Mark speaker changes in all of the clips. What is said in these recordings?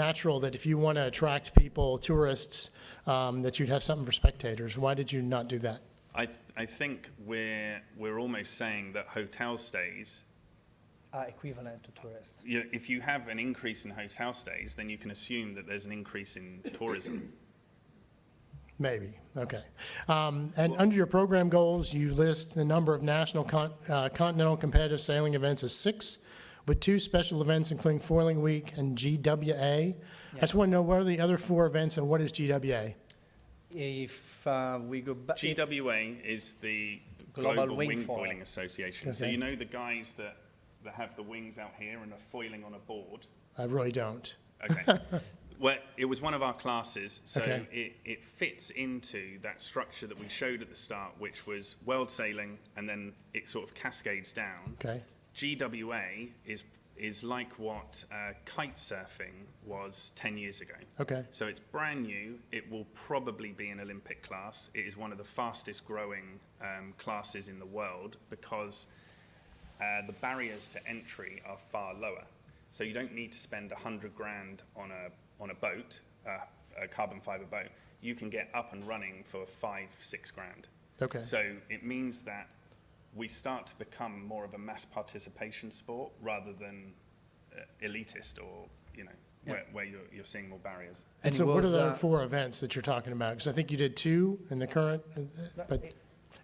Speaker 1: natural that if you want to attract people, tourists, um, that you'd have something for spectators. Why did you not do that?
Speaker 2: I, I think we're, we're almost saying that hotel stays,
Speaker 3: are equivalent to tourists.
Speaker 2: you know, if you have an increase in hotel stays, then you can assume that there's an increase in tourism.
Speaker 1: Maybe, okay. Um, And under your program goals, you list the number of national con- uh, continental competitive sailing events as six, with two special events including Foiling Week and GWA. I just want to know what are the other four events and what is GWA?
Speaker 3: If uh, we go back,
Speaker 2: GWA is the
Speaker 3: Global
Speaker 2: Global,
Speaker 3: Wing
Speaker 2: Wing,
Speaker 3: Foiling.
Speaker 2: Foiling Association. So
Speaker 1: Okay.
Speaker 2: you know the guys that, that have the wings out here and are foiling on a board?
Speaker 1: I really don't.
Speaker 2: Okay. well, it was one of our classes, so
Speaker 1: Okay.
Speaker 2: it, it fits into that structure that we showed at the start, which was world sailing, and then it sort of cascades down.
Speaker 1: Okay.
Speaker 2: GWA is is like what uh, kite surfing was 10 years ago.
Speaker 1: Okay.
Speaker 2: So it's brand new. It will probably be an Olympic class. It is one of the fastest growing um, classes in the world because uh, the barriers to entry are far lower. So you don't need to spend 100 grand on a, on a boat, uh, a carbon fiber boat. You can get up and running for five, six grand.
Speaker 1: Okay.
Speaker 2: So it means that we start to become more of a mass participation sport rather than uh, elitist or, you know, where, where you're, you're seeing more barriers.
Speaker 1: And
Speaker 3: And
Speaker 1: so what are
Speaker 3: was,
Speaker 1: the
Speaker 3: uh,
Speaker 1: four events that you're talking about? Because I think you did two in the current, uh, but,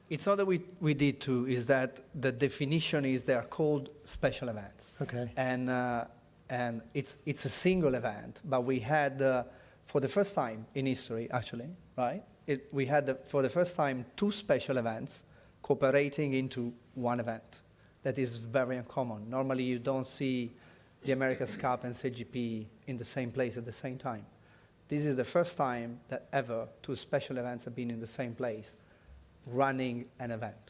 Speaker 3: it's not that we, we did two, is that the definition is they are called special events.
Speaker 1: okay,
Speaker 3: And, uh, and it's, it's a single event, but we had, uh, for the first time in history, actually, right? It, we had, the, for the first time, two special events cooperating into one event. That is very uncommon. Normally, you don't see the America's Cup and CGP in the same place at the same time. This is the first time that ever two special events have been in the same place running an event.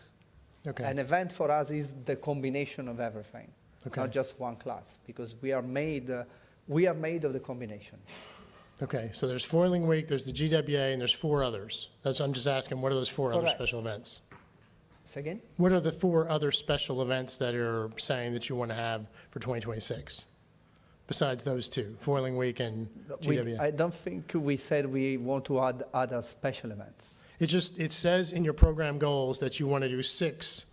Speaker 3: An
Speaker 1: okay,
Speaker 3: event for us is the combination of everything,
Speaker 1: Okay.
Speaker 3: not just one class, because we are made uh, we are made of the combination.
Speaker 1: okay. So there's Foiling Week, there's the GWA, and there's four others. That's, I'm just asking, what are those four other
Speaker 3: Correct.
Speaker 1: special events?
Speaker 3: Say again,
Speaker 1: What are the four other special events that are saying that you want to have for 2026? Besides those two, Foiling Week and
Speaker 3: we,
Speaker 1: GWA?
Speaker 3: I don't think we said we want to add other special events.
Speaker 1: It just, it says in your program goals that you want to do six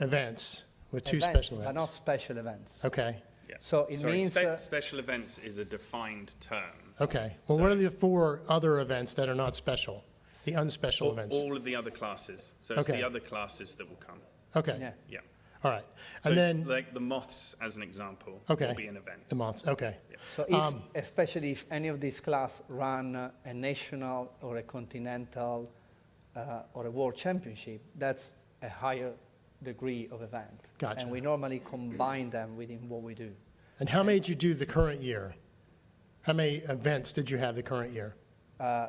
Speaker 1: events with two
Speaker 3: Events
Speaker 1: special
Speaker 3: are not
Speaker 1: events.
Speaker 3: special events.
Speaker 1: Okay,
Speaker 2: Yeah.
Speaker 3: So it
Speaker 2: Sorry,
Speaker 3: means,
Speaker 2: spe-
Speaker 3: uh,
Speaker 2: special events is a defined term.
Speaker 1: okay. Well, what are the four other events that are not special? The unspecial
Speaker 2: All,
Speaker 1: events?
Speaker 2: all of the other classes. So it's
Speaker 1: Okay.
Speaker 2: the other classes that will come.
Speaker 1: Okay,
Speaker 3: Yeah.
Speaker 2: Yeah.
Speaker 1: all right.
Speaker 2: So
Speaker 1: And then,
Speaker 2: like the moths, as an example,
Speaker 1: Okay.
Speaker 2: will be an event.
Speaker 1: the months, okay.
Speaker 3: So if,
Speaker 1: Um,
Speaker 3: especially if any of these class run uh, a national or a continental uh, or a world championship, that's a higher degree of event.
Speaker 1: Gotcha.
Speaker 3: And we normally combine them within what we do.
Speaker 1: And how many did you do the current year? How many events did you have the current year?
Speaker 3: Uh,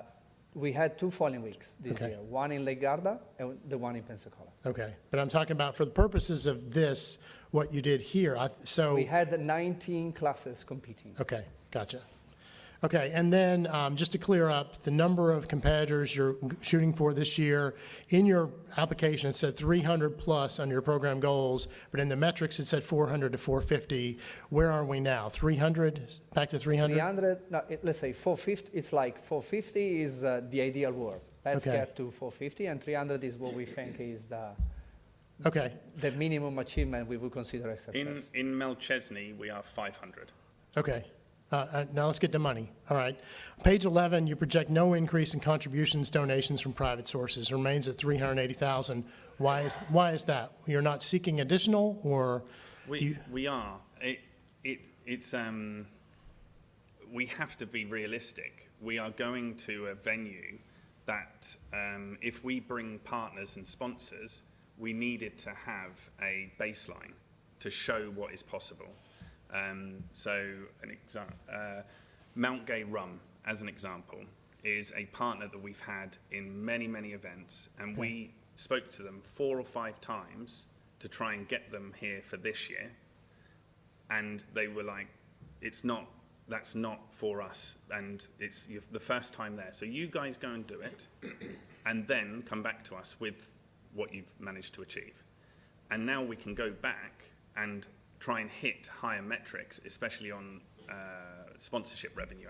Speaker 3: we had two following weeks this
Speaker 1: Okay.
Speaker 3: year, one in Lake Garda and the one in Pensacola.
Speaker 1: Okay, but I'm talking about for the purposes of this, what you did here, I, so,
Speaker 3: We had 19 classes competing.
Speaker 1: okay, gotcha. Okay, and then, um, just to clear up, the number of competitors you're shooting for this year, in your application, it said three hundred plus under your program goals, but in the metrics, it said four hundred to four fifty. Where are we now? Three hundred, back to three hundred?
Speaker 3: 300, no, it- let's say 450, it's like 450 is uh, the ideal world. Let's
Speaker 1: Okay.
Speaker 3: get to 450 and 300 is what we think is the,
Speaker 1: Okay,
Speaker 3: the minimum achievement we would consider a success.
Speaker 2: In, in Melchesney, we are 500.
Speaker 1: Okay, Uh, uh, now let's get to money. All right. Page 11, you project no increase in contributions, donations from private sources, remains at 380,000. Why is, why is that? You're not seeking additional, or do
Speaker 2: We,
Speaker 1: you,
Speaker 2: we are. It, it, it's, um, we have to be realistic. We are going to a venue that, um, if we bring partners and sponsors, we needed to have a baseline to show what is possible. Um, so, an example, uh, Mount Gay Rum, as an example, is a partner that we've had in many, many events, and we spoke to them four or five times to try and get them here for this year and they were like, "It's not. That's not for us." And it's you the first time there, so you guys go and do it, and then come back to us with what you've managed to achieve. And now we can go back and try and hit higher metrics, especially on uh, sponsorship revenue,